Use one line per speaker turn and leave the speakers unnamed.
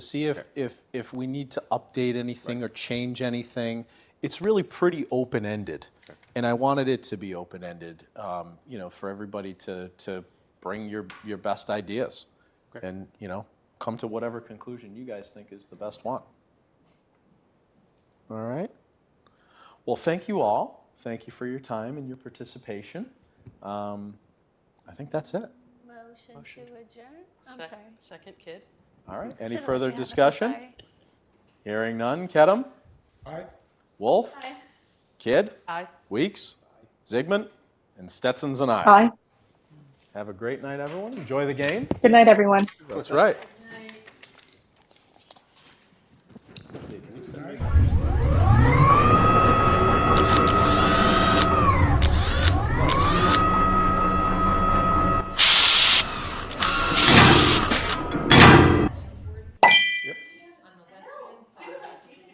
see if, if, if we need to update anything or change anything. It's really pretty open-ended, and I wanted it to be open-ended, um, you know, for everybody to, to bring your, your best ideas. And, you know, come to whatever conclusion you guys think is the best one. All right? Well, thank you all. Thank you for your time and your participation. Um, I think that's it.
Motion to adjourn? I'm
Sec-
sorry.
Second kid?
All right, any
Should I
further
have it?
discussion?
Sorry.
Hearing none, Kedem,
Aye.
Wolf,
Aye.
Kidd,
Aye.
Weeks, Zygmunt, and Stetson's and I.
Hi.
Have a great night, everyone. Enjoy the game.
Good night, everyone.
That's right.